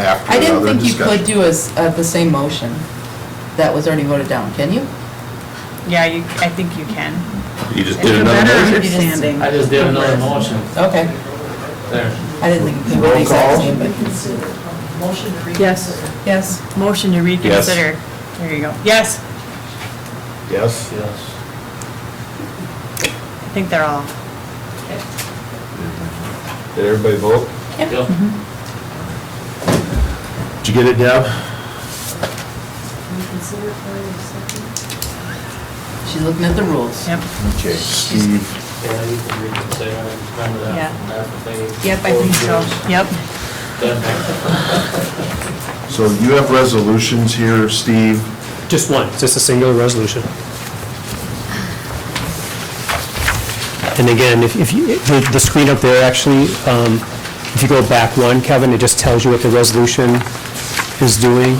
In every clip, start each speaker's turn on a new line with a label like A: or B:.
A: after
B: I didn't
A: another
B: think you could
A: discussion.
B: do as, uh, the same motion that was already voted down, can you?
C: Yeah, you, I think you can.
A: You just
C: It's
A: did
C: a
A: another
C: better
A: motion.
C: understanding.
D: I just did another motion
B: Okay,
D: there.
B: I didn't think you could do the exact same, but,
E: Motion to reconsider.
C: Yes.
B: yes.
C: Motion to reconsider. There you go. Yes,
A: Yes.
D: Yes.
C: I think they're all.
A: Did everybody vote?
D: Yep.
A: Did you get it, Deb?
E: Reconsider for a second.
B: She's looking at the rules.
C: Yep.
A: Okay, Steve,
D: Yeah, you can reconsider, remember that.
C: Yeah.
D: That's the thing.
C: Yep, I think so. Yep.
D: Then-
A: so you have resolutions here, Steve.
F: Just one, just a singular resolution. And again, if if you, the the screen up there, actually, um, if you go back one, Kevin, it just tells you what the resolution is doing,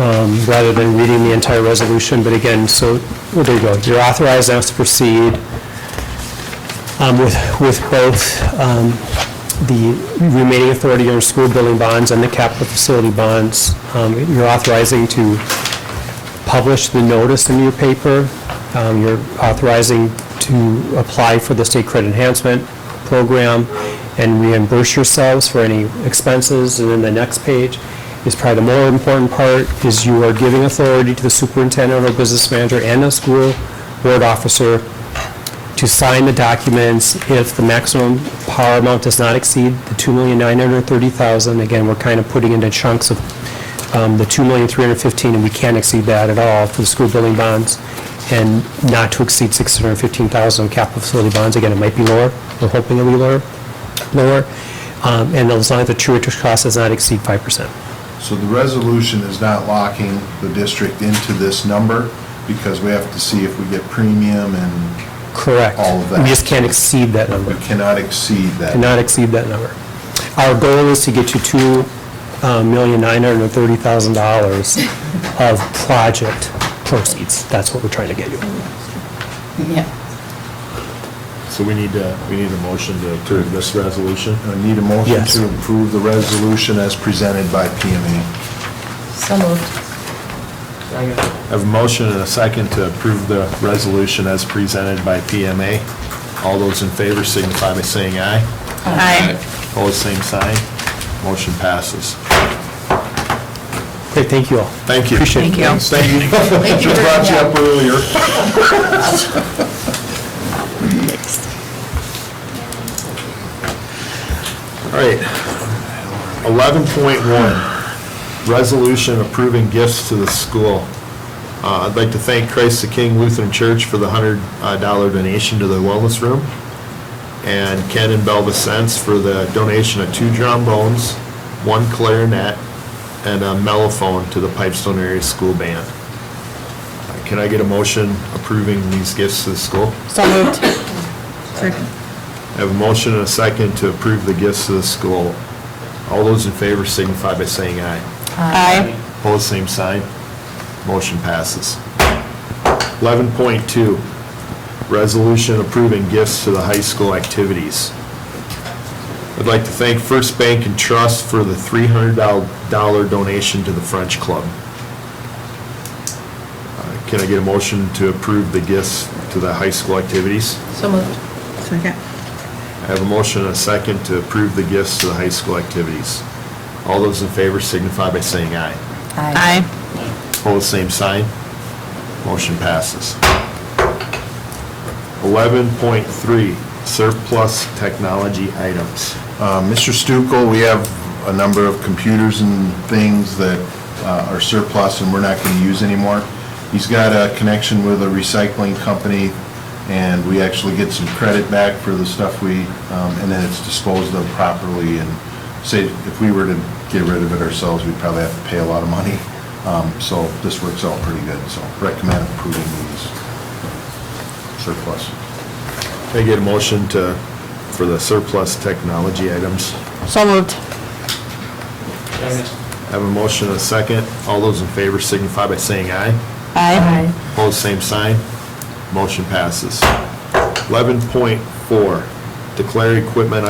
F: um, rather than reading the entire resolution. But again, so, well, there you go. You're authorized now to proceed um, with with both um, the remaining authority under school building bonds and the capital facility bonds. Um, You're authorizing to publish the notice in your paper. Um, You're authorizing to apply for the state credit enhancement program and reimburse yourselves for any expenses. And then the next page is probably the more important part, is you are giving authority to the superintendent or business manager and the school board officer to sign the documents if the maximum power amount does not exceed the $2,930,000. Again, we're kind of putting into chunks of um, the $2,315,000, and we can't exceed that at all for the school building bonds, and not to exceed $615,000 capital facility bonds. Again, it might be lower, we're hoping it'll be lower, lower, Um, and as long as the true interest cost does not exceed 5%.
A: So the resolution is not locking the district into this number because we have to see if we get premium and
F: Correct.
A: All of that.
F: We just can't exceed that number.
A: we cannot exceed that.
F: cannot exceed that number. Our goal is to get to two uh, million nine hundred and thirty thousand dollars of project proceeds. That's what we're trying to get you.
B: Yeah.
G: So we need to, we need a motion to approve this resolution?
A: I need a motion
F: Yes.
A: to approve the resolution as presented by PMA.
B: So moved.
D: Second.
G: I have a motion and a second to approve the resolution as presented by PMA. All those in favor signify by saying aye.
C: Aye.
G: Opposed, same sign. Motion passes.
F: Great, thank you all.
G: Thank you.
F: Appreciate it.
C: Thank you.
G: Thank you.
B: Thank you
G: Just
B: very
G: brought you
B: much.
G: up earlier. All right. 11.1, resolution approving gifts to the school. Uh, I'd like to thank Christ the King Lutheran Church for the $100 donation to the wellness room, and Ken and Belva Sense for the donation of two trombones, one clarinet, and a mellophone to the Pipestone Area School Band. Uh, Can I get a motion approving these gifts to the school?
C: So moved.
G: I have a motion and a second to approve the gifts to the school. All those in favor signify by saying aye.
C: Aye.
G: Opposed, same sign. Motion passes. 11.2, resolution approving gifts to the high school activities. I'd like to thank First Bank and Trust for the $300 donation to the French Club. Uh, Can I get a motion to approve the gifts to the high school activities?
B: So moved.
C: Second.
G: I have a motion and a second to approve the gifts to the high school activities. All those in favor signify by saying aye.
C: Aye.
G: Opposed, same sign. Motion passes. 11.3, surplus technology items.
A: Uh, Mr. Stukel, we have a number of computers and things that uh, are surplus and we're not going to use anymore. He's got a connection with a recycling company, and we actually get some credit back for the stuff we, um, and then it's disposed of properly. And say, if we were to get rid of it ourselves, we'd probably have to pay a lot of money. Um, So this works out pretty good, so recommend approving these surplus.
G: Can I get a motion to, for the surplus technology items?
C: So moved.
G: I
D: Second.
G: have a motion and a second. All those in favor signify by saying aye.
C: Aye.
G: Opposed, same sign. Motion passes. 11.4, declare equipment